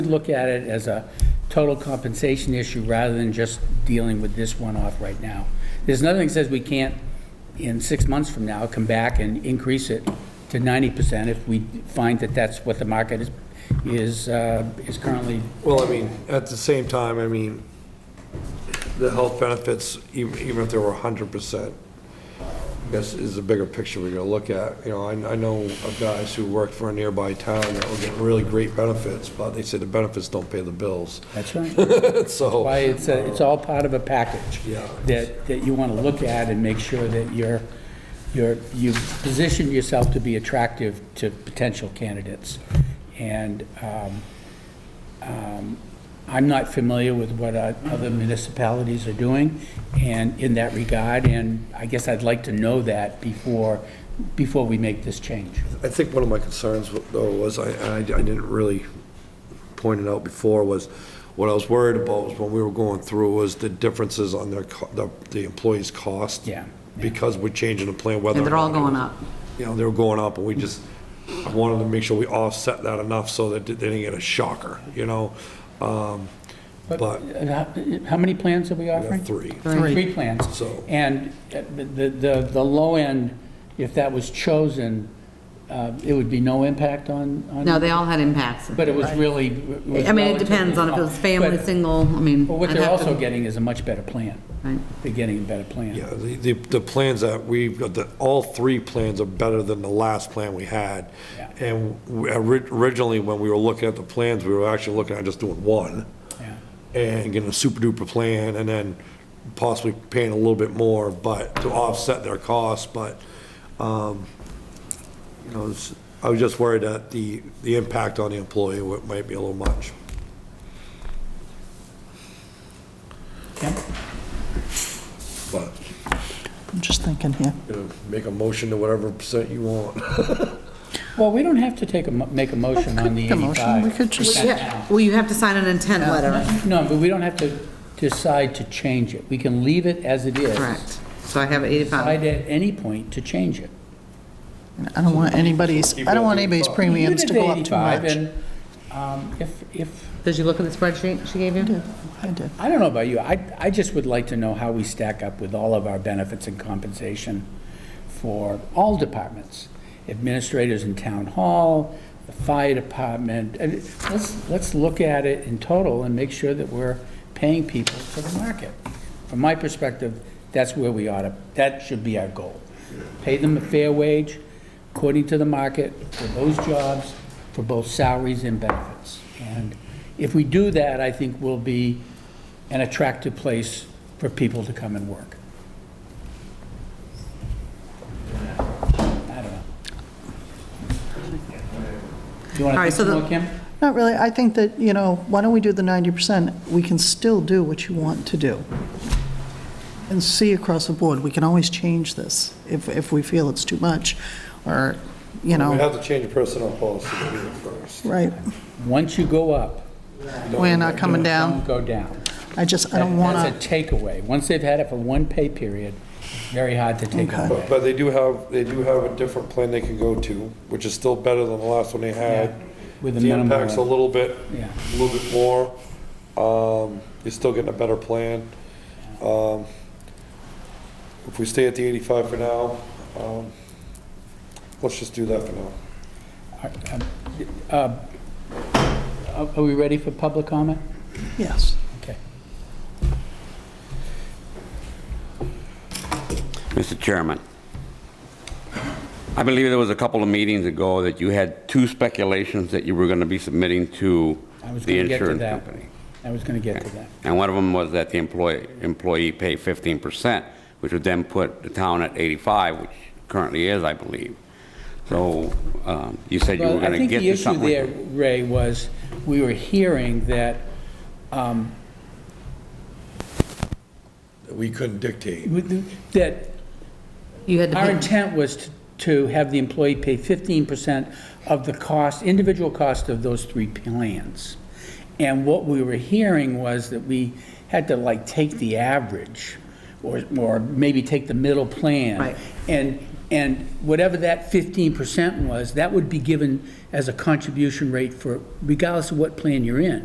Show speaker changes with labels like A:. A: look at it as a total compensation issue rather than just dealing with this one off right now. There's nothing that says we can't, in six months from now, come back and increase it to 90% if we find that that's what the market is, is, uh, is currently,
B: Well, I mean, at the same time, I mean, the health benefits, even even if they were 100%, I guess is the bigger picture we're going to look at. You know, I I know of guys who worked for a nearby town that were getting really great benefits, but they said the benefits don't pay the bills.
A: that's right. Why,
B: So,
A: it's, a- it's all part of a package.
B: Yeah.
A: That, that you want to look at and make sure that you're, you're, you've positioned yourself to be attractive to potential candidates. And, um, I'm not familiar with what uh, other municipalities are doing and in that regard, and I guess I'd like to know that before, before we make this change.
B: I think one of my concerns though was, I I I didn't really point it out before, was what I was worried about was when we were going through was the differences on their, co- the the employees' cost.
A: Yeah, yeah.
B: Because we're changing the plan, whether.
C: And
B: or
C: they're all
B: not-
C: going up.
B: you know, they were going up, and we just wanted to make sure we offset that enough so that they didn't get a shocker, you know? Um, But,
A: And Uh, How how many plans are we
B: we
A: offering?
B: have three.
C: Three.
A: Three plans.
B: So-
A: And uh, the, the, the low end, if that was chosen, uh, it would be no impact on, on.
C: No, they all had impacts.
A: But it was really. was
C: I mean, it
A: relatively
C: depends on if it was
A: small.
C: family,
A: But-
C: single, I mean.
A: But what
C: I'd
A: they're
C: have
A: also
C: to-
A: getting is a much better plan.
C: Right.
A: They're getting a better plan.
B: Yeah, the, the the plans that we've got, the, all three plans are better than the last plan we had.
A: Yeah.
B: And we- ori- originally, when we were looking at the plans, we were actually looking at just doing one.
A: Yeah.
B: and getting a super duper plan and then possibly paying a little bit more, but to offset their costs, but, um, you know, it's- I was just worried that the, the impact on the employee wa- might be a little much.
A: Kim?
B: But,
D: I'm just thinking here.
B: you know, make a motion to whatever percent you want.
A: Well, we don't have to take a, mo- make a motion on the
D: Make a motion,
A: 85.
D: we could just,
C: Yeah, well, you have to sign an intent letter.
A: No, but we don't have to decide to change it. We can leave it as it is.
C: Correct. So I have 85.
A: Decide at any point to change it.
D: I don't want anybody's, I don't want anybody's premiums to go up
A: Leave
D: too
A: it at
D: much.
A: 85, and, um, If, if,
C: Did you look at the spreadsheet she gave you?
D: I did.
A: I don't know about you, I, I just would like to know how we stack up with all of our benefits and compensation for all departments, administrators in town hall, the fire department, and it- let's, let's look at it in total and make sure that we're paying people for the market. From my perspective, that's where we ought to, that should be our goal. Pay them a fair wage according to the market for those jobs, for both salaries and benefits. And if we do that, I think we'll be an attractive place for people to come and work. I don't know. Do you want to
C: All right,
A: think
C: so
A: some
C: the-
A: more, Kim?
D: Not really, I think that, you know, why don't we do the 90%? We can still do what you want to do. And see across the board, we can always change this if, if we feel it's too much, or, you
B: We
D: know,
B: have to change the personnel policy to do it first.
D: right,
A: Once you go up,
D: we're not coming down.
A: don't go down.
D: I just, I don't want
A: That's a takeaway. Once they've had it for one pay period, it's very hard to take it
D: Okay.
A: away.
B: But they do have, they do have a different plan they can go to, which is still better than the last one they had.
A: Yeah, with a
B: The
A: minimum
B: impact's a
A: of-
B: little bit,
A: Yeah.
B: a little bit more. Um, You're still getting a better plan. Um, If we stay at the 85 for now, um, let's just do that for now.
A: Uh, Are uh, are we ready for public comment?
D: to, yes.
A: Okay.
E: Mr. Chairman, I believe there was a couple of meetings ago that you had two speculations that you were going to be submitting to
A: I was
E: the
A: going to get to
E: insurance
A: that.
E: company.
A: I was going to get to that.
E: And one of them was that the employee, employee pay 15%, which would then put the town at 85, which currently is, I believe. So um, you said you were
A: Well, I
E: going to
A: think
E: get
A: the
E: to
A: issue
E: something. like
A: there,
E: that.
A: Ray, was we were hearing that
B: We couldn't dictate.
A: With the- that
C: You had to
A: our
C: pay,
A: intent was t- to have the employee pay 15% of the cost, individual cost of those three plans. And what we were hearing was that we had to like take the average, or, or maybe take the middle plan.
C: Right.
A: And And whatever that 15% was, that would be given as a contribution rate for, regardless of what plan you're in.